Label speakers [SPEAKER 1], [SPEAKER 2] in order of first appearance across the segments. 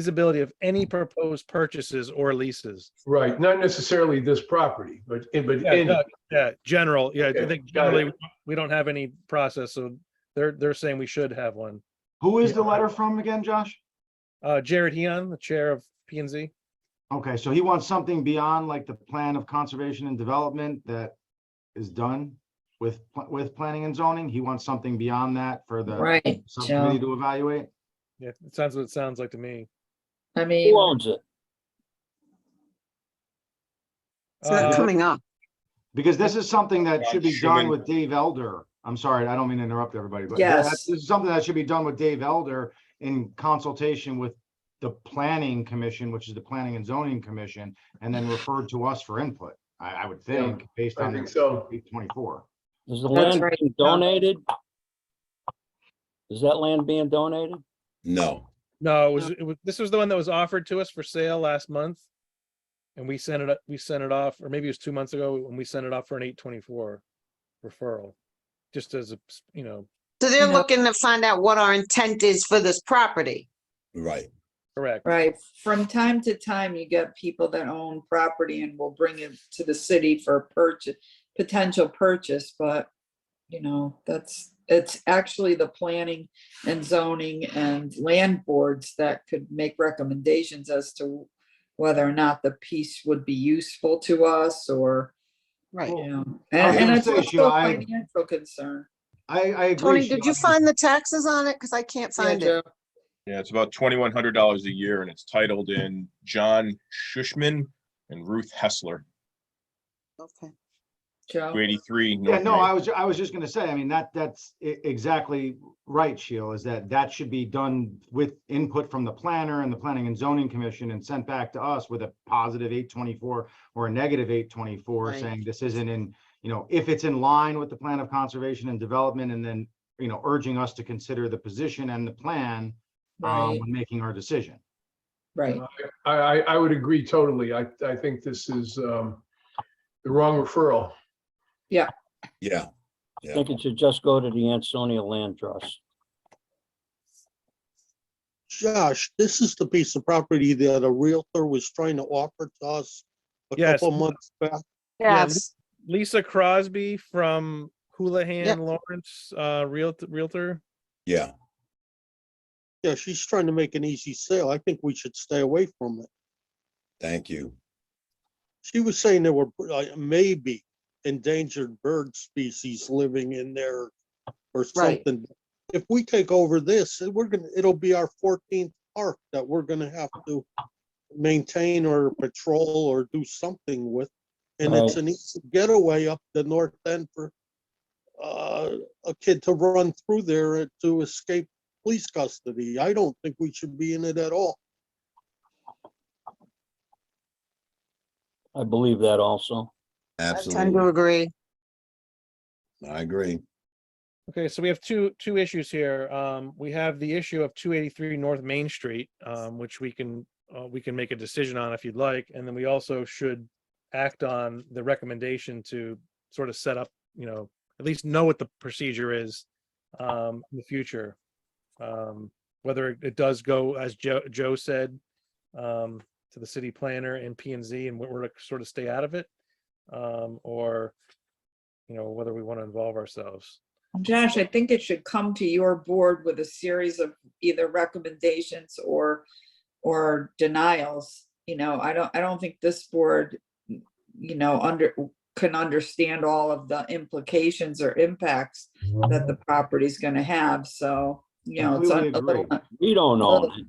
[SPEAKER 1] feasibility of any proposed purchases or leases.
[SPEAKER 2] Right, not necessarily this property, but, but
[SPEAKER 1] Yeah,
[SPEAKER 2] any,
[SPEAKER 1] no, uh, yeah, general, yeah, I
[SPEAKER 2] Okay,
[SPEAKER 1] think
[SPEAKER 2] got it.
[SPEAKER 1] generally, we don't have any process, so they're, they're saying we should have one.
[SPEAKER 3] Who is the letter from again, Josh?
[SPEAKER 1] Uh, Jared Heon, the chair of P and Z.
[SPEAKER 3] Okay, so he wants something beyond like the plan of conservation and development that is done with, pl- with planning and zoning. He wants something beyond that for the
[SPEAKER 4] Right,
[SPEAKER 3] subcommittee
[SPEAKER 4] so,
[SPEAKER 3] to evaluate.
[SPEAKER 1] Yeah, it sounds what it sounds like to me.
[SPEAKER 4] I mean,
[SPEAKER 5] Who owns it?
[SPEAKER 6] It's not
[SPEAKER 1] Uh,
[SPEAKER 6] coming up.
[SPEAKER 3] Because this is something that
[SPEAKER 7] Ron
[SPEAKER 3] should be done
[SPEAKER 7] Schuman.
[SPEAKER 3] with Dave Elder. I'm sorry, I don't mean to interrupt everybody, but that-
[SPEAKER 4] Yes.
[SPEAKER 3] this is something that should be done with Dave Elder in consultation with the planning commission, which is the planning and zoning commission, and then referred to us for input, I, I would
[SPEAKER 2] Yeah,
[SPEAKER 3] think, based
[SPEAKER 2] I
[SPEAKER 3] on
[SPEAKER 2] think so.
[SPEAKER 3] eight twenty-four.
[SPEAKER 5] Is the
[SPEAKER 4] That's
[SPEAKER 5] land
[SPEAKER 4] right.
[SPEAKER 5] being donated? Is that land being donated?
[SPEAKER 7] No.
[SPEAKER 1] No, it was, it was, this was the one that was offered to us for sale last month. And we sent it, up- we sent it off, or maybe it was two months ago, when we sent it off for an eight twenty-four referral. Just as, a s- you know,
[SPEAKER 6] So they're
[SPEAKER 4] No.
[SPEAKER 6] looking to find out what our intent is for this property.
[SPEAKER 7] Right.
[SPEAKER 1] correct,
[SPEAKER 4] right, from time to time, you get people that own property and will bring it to the city for purchase, potential purchase, but you know, that's, it's actually the planning and zoning and land boards that could make recommendations as to whether or not the piece would be useful to us or,
[SPEAKER 6] Right.
[SPEAKER 4] you know,
[SPEAKER 3] I was
[SPEAKER 4] and and
[SPEAKER 3] gonna
[SPEAKER 4] it's
[SPEAKER 3] say,
[SPEAKER 4] also
[SPEAKER 3] Sheila,
[SPEAKER 4] a
[SPEAKER 3] I-
[SPEAKER 4] financial concern.
[SPEAKER 3] I, I agree.
[SPEAKER 6] Tony, did
[SPEAKER 3] Sheila.
[SPEAKER 6] you find the taxes on it? Because I can't
[SPEAKER 4] Yeah,
[SPEAKER 6] find
[SPEAKER 4] Joe.
[SPEAKER 6] it.
[SPEAKER 7] Yeah, it's about twenty-one hundred dollars a year and it's titled in John Shushman and Ruth Hessler,
[SPEAKER 6] Okay.
[SPEAKER 4] Joe.
[SPEAKER 7] two eighty-three.
[SPEAKER 3] Yeah, no, I was, I was just gonna say, I mean, that, that's e- exactly right, Sheila, is that that should be done with input from the planner and the planning and zoning commission and sent back to us with a positive eight twenty-four or a negative eight twenty-four,
[SPEAKER 6] Right.
[SPEAKER 3] saying this isn't in, you know, if it's in line with the plan of conservation and development, and then, you know, urging us to consider the position and the plan um,
[SPEAKER 4] Right,
[SPEAKER 3] when making our decision.
[SPEAKER 4] right.
[SPEAKER 2] I, I, I would agree totally. I, I think this is, um, the wrong referral.
[SPEAKER 7] Yeah.
[SPEAKER 5] I think it should just go to the Ansonia Land Trust.
[SPEAKER 8] Josh, this is the piece of property that a realtor was trying to offer to us a
[SPEAKER 1] Yes.
[SPEAKER 8] couple months back.
[SPEAKER 1] Yeah, Lisa Crosby from Houlihan Lawrence, uh, Realtor, Realtor.
[SPEAKER 7] Yeah.
[SPEAKER 8] Yeah, she's trying to make an easy sale. I think we should stay away from it.
[SPEAKER 9] Thank you.
[SPEAKER 8] She was saying there were uh, maybe endangered bird species living in there or
[SPEAKER 4] Right.
[SPEAKER 8] something. If we take over this, we're gonna, it'll be our fourteenth park that we're gonna have to maintain or patrol or do something with. And it's
[SPEAKER 5] Right.
[SPEAKER 8] an easy getaway up the north end for uh, a kid to run through there to escape police custody. I don't think we should be in it at all.
[SPEAKER 5] I believe that also.
[SPEAKER 6] I tend to
[SPEAKER 9] Absolutely.
[SPEAKER 6] agree.
[SPEAKER 9] I agree.
[SPEAKER 1] Okay, so we have two, two issues here. Um, we have the issue of two eighty-three North Main Street, um, which we can, uh, we can make a decision on if you'd like. And then we also should act on the recommendation to sort of set up, you know, at least know what the procedure is, um, in the future. Um, whether it- it does go, as Joe, Joe said, um, to the city planner and P and Z and we're to sort of stay out of it. Um, or, you know, whether we want to involve ourselves.
[SPEAKER 4] Josh, I think it should come to your board with a series of either recommendations or, or denials. You know, I don't, I don't think this board, you know, under, can understand all of the implications or impacts that the property's gonna have, so, you know, it's
[SPEAKER 3] Completely
[SPEAKER 4] a little,
[SPEAKER 3] agree.
[SPEAKER 5] We don't own
[SPEAKER 4] Well,
[SPEAKER 5] it.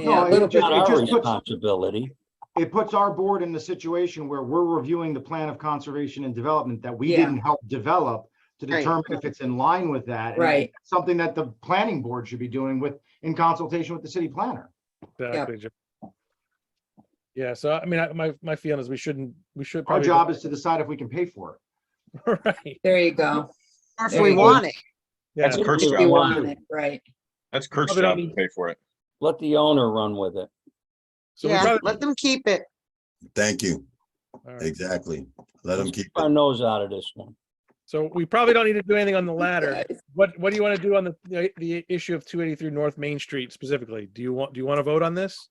[SPEAKER 4] yeah,
[SPEAKER 3] No,
[SPEAKER 4] a
[SPEAKER 3] it
[SPEAKER 4] little
[SPEAKER 5] It's
[SPEAKER 4] bit.
[SPEAKER 3] just-
[SPEAKER 5] not our
[SPEAKER 3] puts-
[SPEAKER 5] responsibility.
[SPEAKER 3] It puts our board in the situation where we're reviewing the plan of conservation and development that we
[SPEAKER 4] Yeah.
[SPEAKER 3] didn't help develop to
[SPEAKER 6] Right.
[SPEAKER 3] determine if it's in line with that. and
[SPEAKER 4] Right,
[SPEAKER 3] something that the planning board should be doing with, in consultation with the city planner.
[SPEAKER 1] Exactly. Joe. Yeah, so I mean, I- my, my feeling is we shouldn't, we should.
[SPEAKER 3] Our
[SPEAKER 1] probably go-
[SPEAKER 3] job is to decide if we can pay for it.
[SPEAKER 1] Right,
[SPEAKER 4] there you go.
[SPEAKER 6] Or if
[SPEAKER 4] There
[SPEAKER 6] we
[SPEAKER 4] you go.
[SPEAKER 6] want it.
[SPEAKER 1] yeah,
[SPEAKER 7] That's Kirk's
[SPEAKER 4] If you
[SPEAKER 7] job.
[SPEAKER 4] want it, right,
[SPEAKER 7] That's Kirk's
[SPEAKER 1] Probably don't
[SPEAKER 7] job to
[SPEAKER 1] need-
[SPEAKER 7] pay for it.
[SPEAKER 5] Let the owner run with it.
[SPEAKER 1] so we
[SPEAKER 6] Yeah,
[SPEAKER 1] probably-
[SPEAKER 6] let them keep it.
[SPEAKER 9] Thank you.
[SPEAKER 1] all right.
[SPEAKER 9] Exactly. Let them keep it.
[SPEAKER 5] Our nose out of this one.
[SPEAKER 1] so we probably don't need to do anything on the
[SPEAKER 4] Yeah,
[SPEAKER 1] latter. What, what do you want to do on the, the, the issue of two eighty-three North Main Street specifically? Do you want, do you want to vote on this?